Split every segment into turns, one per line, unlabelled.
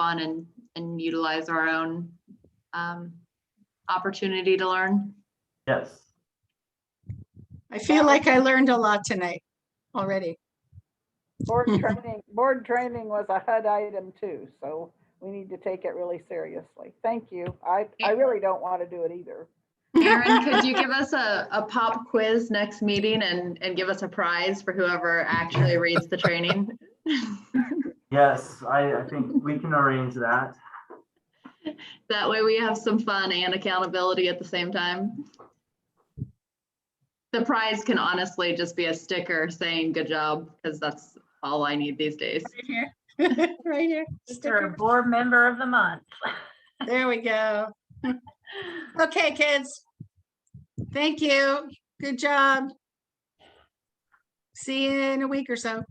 on and, and utilize our own um, opportunity to learn.
Yes.
I feel like I learned a lot tonight already.
Board training, board training was a HUD item too, so we need to take it really seriously. Thank you. I, I really don't want to do it either.
Erin, could you give us a, a pop quiz next meeting and, and give us a prize for whoever actually reads the training?
Yes, I, I think we can arrange that.
That way we have some fun and accountability at the same time. The prize can honestly just be a sticker saying good job, because that's all I need these days.
Right here. Right here.
You're a
Sticker.
board member of the month.
There we go. Okay, kids. Thank you. Good job. See you in a week or so.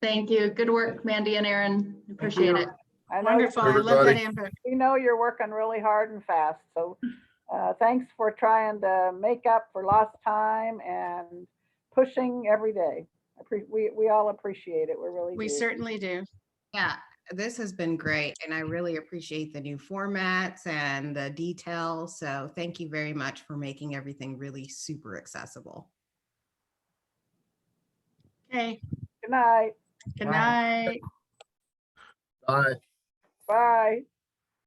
Thank you. Good work, Mandy and Erin. Appreciate
you.
it.
I know
Wonderful. I love that
Everybody.
input.
we know you're working really hard and fast, so uh, thanks for trying to make up for lost time and pushing every day. I appre- We, we all appreciate it. We really
We
do.
certainly do.
Yeah, this has been great and I really appreciate the new formats and the detail. So thank you very much for making everything really super accessible.
Okay,
Good night.
good
Wow.
night.
Bye.
Bye.